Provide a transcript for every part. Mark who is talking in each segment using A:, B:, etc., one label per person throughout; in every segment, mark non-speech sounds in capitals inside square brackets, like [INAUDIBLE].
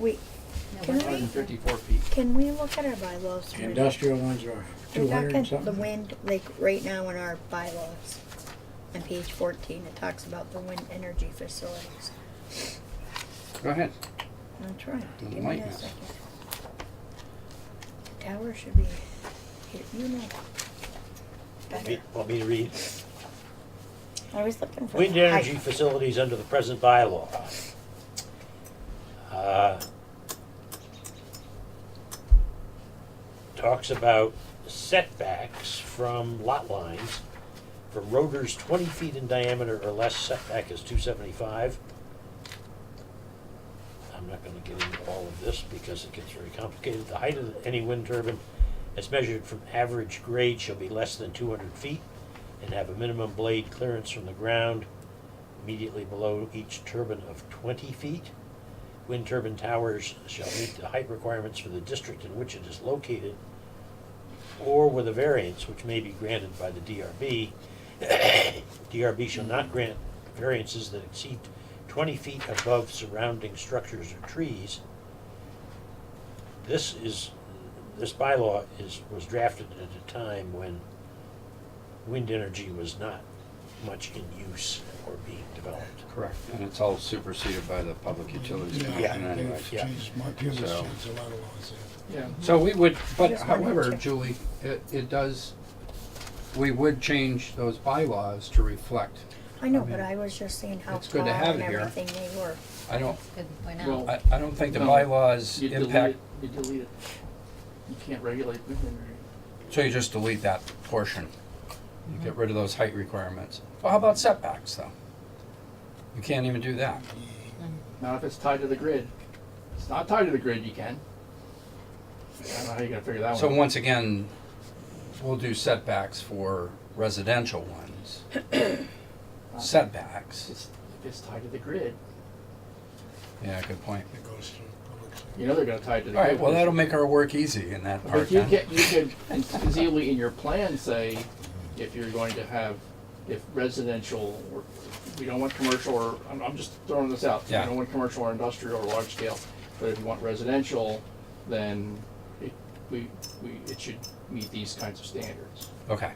A: Wait, can we,
B: 154 feet.
A: can we look at our bylaws?
C: The
A: for-
C: Industrial ones are
A: We're
C: two hundred
A: talking
C: and something.
A: The wind, like right now in our bylaws, on page fourteen, it talks about the wind energy facilities.
B: Go ahead.
A: I'm trying,
B: Doesn't
A: give me
B: like
A: a
B: us.
A: second. Tower should be, here, you know, better.
D: Re- Want me to read?
A: I was looking for.
D: Wind
A: the height.
D: energy facilities under the present bylaw. Uh, Talks about setbacks from lot lines, from rotors twenty feet in diameter or less, setback is two seventy-five. I'm not gonna get into all of this because it gets very complicated. The height of any wind turbine as measured from average grade shall be less than two hundred feet and have a minimum blade clearance from the ground immediately below each turbine of 20 feet. Wind turbine towers shall meet the height requirements for the district in which it is located or with a variance which may be granted by the DRB. DRB shall not grant variances that exceed 20 feet above surrounding structures or trees. This is, this bylaw is, was drafted at a time when wind energy was not much in use or being developed.
B: Correct. And it's all superseded by the Public Utilities
D: Yeah.
B: Commission anyways.
D: Yeah.
E: Geez, my goodness,
B: So-
E: there's a lot of laws there.
B: Yeah. So we would, but
A: Just wanted
B: however,
A: to-
B: Julie, it, it does, we would change those bylaws to reflect.
A: I know,
B: I
A: but
B: mean,
A: I was just seeing how
B: it's good
A: tall
B: to have
A: and
B: it here.
A: everything they were.
B: I don't,
F: Good point out.
G: Well,
B: I, I don't think the
G: No.
B: bylaws
G: you delete
B: impact,
G: it, you delete it. You can't regulate wind energy.
B: so you just delete that portion. You get rid of those height requirements. Well, how about setbacks though? You can't even do that.
G: Not if it's tied to the grid. If it's not tied to the grid, you can. I don't know how you're gonna figure that
B: So
G: one. out.
B: once again, we'll do setbacks for residential
G: [COUGHS]
B: ones. Setbacks,
G: It's, if it's tied to the grid,
B: yeah, good point.
E: It goes through public
G: you know they're gonna tie it to the
B: All
G: grid.
B: right, well, that'll make our work easy in that part
G: But you
B: then.
G: can, you could conceivably in your plan say, if you're going to have, if residential or, we don't want commercial or, I'm, I'm just throwing this out.
B: Yeah.
G: We don't want commercial or industrial or large scale, but if you want residential, then it, we, we, it should meet these kinds of standards.
B: Okay.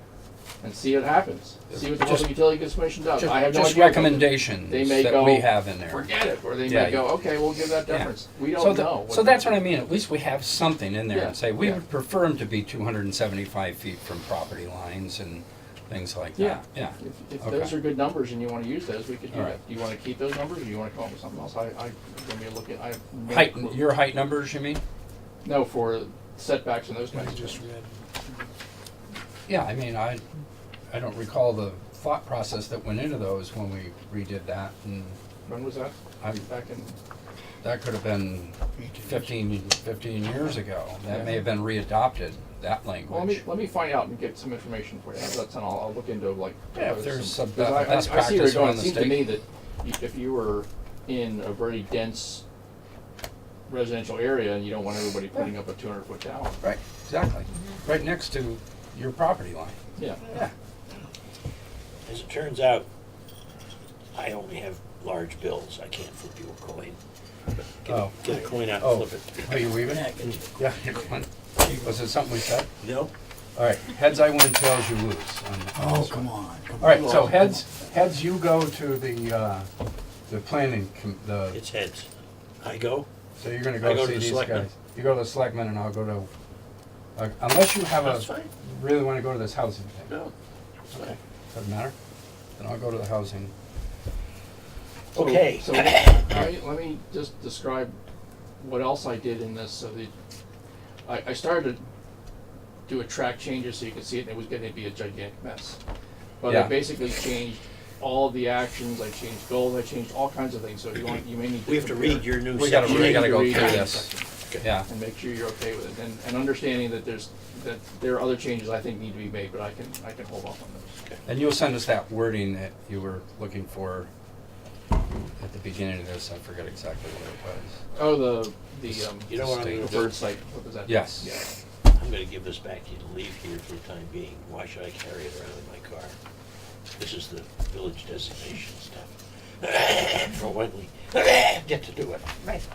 G: And see what happens, see what the
B: Just-
G: Public Utility Commission does. I have
B: Just
G: no idea.
B: just
G: what they-
B: recommendations
G: They may
B: that
G: go,
B: we have in there.
G: Forget it, or they
B: Yeah,
G: may go, okay, we'll give that
B: Yeah.
G: deference. We
B: So
G: don't
B: the-
G: know.
B: So that's what I mean, at least we have something in there
G: Yeah,
B: and say, we
G: yeah.
B: would prefer them to be two hundred and seventy-five feet from property lines and things like
G: Yeah.
B: that. Yeah.
G: If, if
B: Okay.
G: those are good numbers and you wanna use those, we could do
B: All
G: that.
B: right.
G: Do you wanna keep those numbers or do you wanna come up with something else? I, I, I'm gonna be looking, I have no
B: Height,
G: clue.
B: your height numbers, you mean?
G: No, for setbacks and those
E: I
G: kinds of
E: just
G: things.
E: read,
B: Yeah, I mean, I, I don't recall the thought process that went into those when we redid that, and
G: When was that?
B: I,
G: Back in,
B: that could have been fifteen, fifteen years ago. That may have been readopted, that
G: well, let me,
B: language.
G: let me find out and get some information for you. How's that sound? I'll, I'll look into like.
B: Yeah, if
G: those-
B: there's some be-
G: 'cause I- I-
B: best
G: I
B: practice
G: see where you're going.
B: around the
G: It seems
B: state.
G: to me that you- if you were in a very dense residential area and you don't want everybody putting up a two hundred foot tower.
B: Right, exactly. Right next to your property line.
G: Yeah,
B: Yeah.
D: As it turns out, I only have large bills. I can't flip you a coin. Get,
B: Oh.
D: a, get a coin out
B: Oh,
D: and flip
B: are you leaving?
D: it.
B: Yeah. you're going. Was it something we said?
D: No?
B: All right, heads I win, tails you lose. on- on
E: oh,
B: this one.
E: come on, come
B: All
E: on.
B: right, so heads, heads you go to the, uh, the planning, com- the
D: It's heads. I go.
B: So you're gonna
D: I
B: go
D: go to
B: see
D: the
B: these
D: selectmen.
B: guys? You go to the selectmen and I'll go to, uh, unless you have
D: That's
B: a,
D: fine.
B: really wanna go to this housing thing,
D: No. It's fine.
B: doesn't matter? Then I'll go to the housing.
G: So-
D: Okay.
B: [LAUGHS]
G: So, let me, let me just describe what else I did in this, so that, I, I started to do a track changes so you could see it, and it was gonna be a gigantic mess. But I
B: Yeah.
G: basically changed all of the actions, I changed goals, I changed all kinds of things, so you want, you may need to.
D: We have to
G: compare.
D: read your new
B: We gotta-
G: You
D: section.
B: we
G: need
B: gotta
G: to
B: go
G: read
B: through
G: your
B: this.
G: section
B: Yeah,
G: And make sure you're okay with it, and, and understanding that there's, that there are other changes I think need to be made, but I can, I can hold off on those.
B: and you'll send us that wording that you were looking for at the beginning of this, I forget exactly what it was.
G: Oh, the, the, um,
D: You know what I'm gonna do?
G: preferred site, what was that?
B: Yes.
G: Yeah.
D: I'm gonna give this back to you to leave here for the time being. Why should I carry it around in my car? This is the [COUGHS] village designation stuff. For when we get to do it.
F: Right.